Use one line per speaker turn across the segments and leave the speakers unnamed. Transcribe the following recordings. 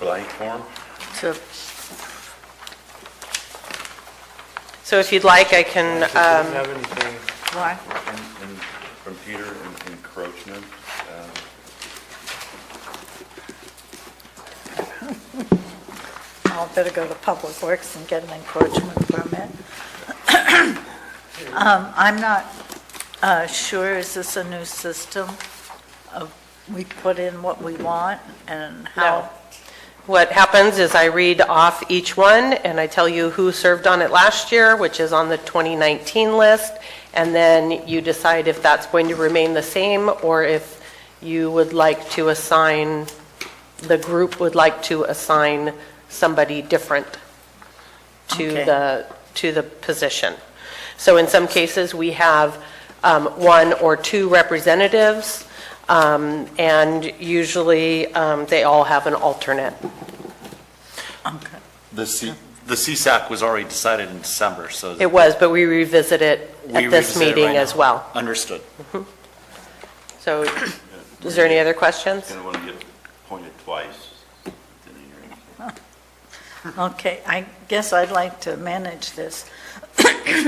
blank form?
So So if you'd like, I can,
It doesn't
um,
have anything,
Why?
And, and from Peter, en- encroachment, uh,
I'll better go to Public Works and get an encroachment permit. Um, I'm not uh, sure, is this a new system? of We put in what we want and
no.
how?
What happens is I read off each one, and I tell you who served on it last year, which is on the 2019 list, and then you decide if that's going to remain the same, or if you would like to assign, the group would like to assign somebody different to
Okay.
the, to the position. So in some cases, we have um, one or two representatives, um, and usually um, they all have an alternate.
Okay.
The C, the CSAC was already decided in December, so.
It was, but we revisit it
we
at this
revisit it right
meeting as
now.
well.
Understood.
So is there any other questions?
gonna wanna get pointed twice. didn't you?
Okay, I guess I'd like to manage this.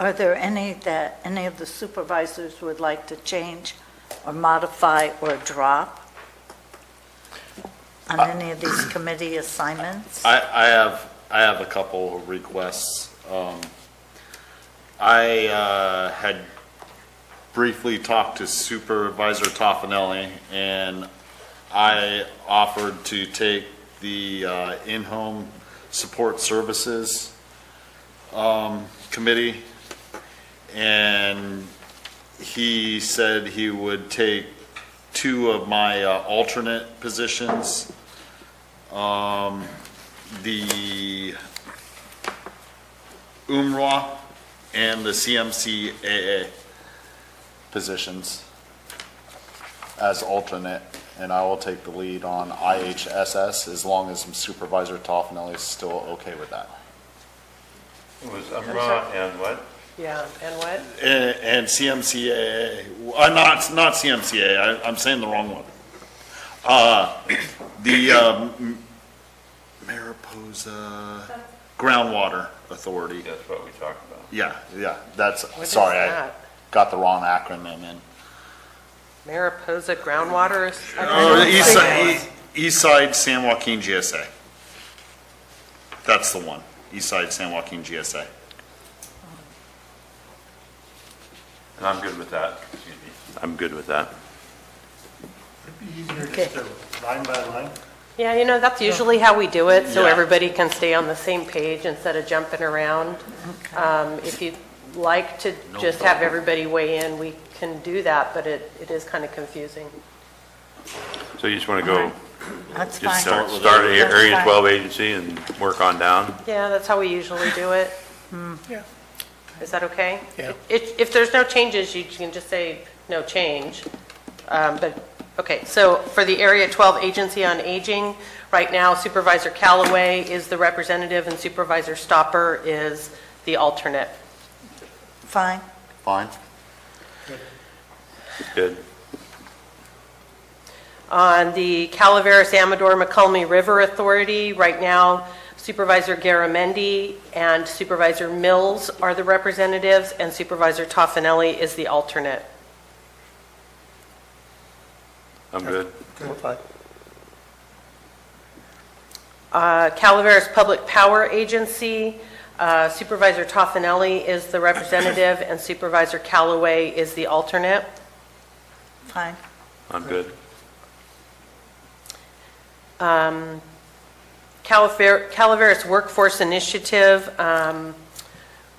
Are there any that, any of the supervisors would like to change or modify or drop on any of these committee assignments?
I, I have, I have a couple of requests. Um, I uh, had briefly talked to Supervisor Toffenelli, and I offered to take the uh, in-home support services um, committee, and he said he would take two of my uh, alternate positions the UMRA and the CMCAA positions as alternate, and I will take the lead on IHSS as long as Supervisor Toffenelli is still okay with that.
It was Umrah and what?
Yeah, and what?
And and CMCAA, uh, not, not CMCAA, I- I'm saying the wrong one. Uh, The um, Mariposa Groundwater Authority.
That's what we talked about.
Yeah, yeah, that's,
is
sorry, I
that?
got the wrong acronym in.
Mariposa groundwater? is- I don't
Oh,
know.
East Side, E- East Side San Joaquin GSA. That's the one, East Side San Joaquin GSA.
And I'm good with that, excuse me. I'm good with that.
it'd be easier
Okay.
just to line by line.
Yeah, you know, that's usually how we do it, so
Yeah.
everybody can stay on the same page instead of jumping around. Um, If you'd like to just have everybody weigh in, we can do that, but it, it is kind of confusing.
So you just wanna go,
That's
just
fine.
start, start at
That's
Area
fine.
12 agency and work on down?
Yeah, that's how we usually do it.
Yeah.
Is that okay?
Yeah.
If, if there's no changes, you can just say, no change. Um, But, okay, so for the Area 12 Agency on Aging, right now Supervisor Callaway is the representative and Supervisor Stopper is the alternate.
Fine,
Fine.
Good.
On the Calaveras Amador McCulmy River Authority, right now Supervisor Garamendi and Supervisor Mills are the representatives, and Supervisor Toffenelli is the alternate.
I'm good.
Fine.
Uh, Calaveras Public Power Agency, uh, Supervisor Toffenelli is the representative, and Supervisor Callaway is the alternate.
fine.
I'm good.
Calaver- Calaveras Workforce Initiative, um,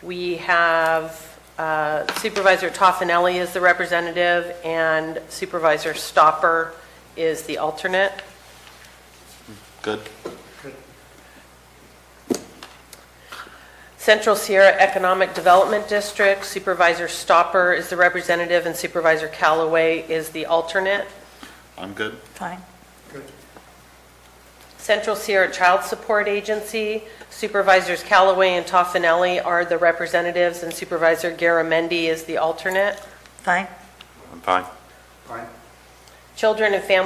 we have uh, Supervisor Toffenelli is the representative, and Supervisor Stopper is the alternate.
Good.
Central Sierra Economic Development District, Supervisor Stopper is the representative, and Supervisor Callaway is the alternate.
I'm good.
Fine,
Central Sierra Child Support Agency, Supervisors Callaway and Toffenelli are the representatives, and Supervisor Garamendi is the alternate.
fine.
I'm fine.
Fine.
Children and Family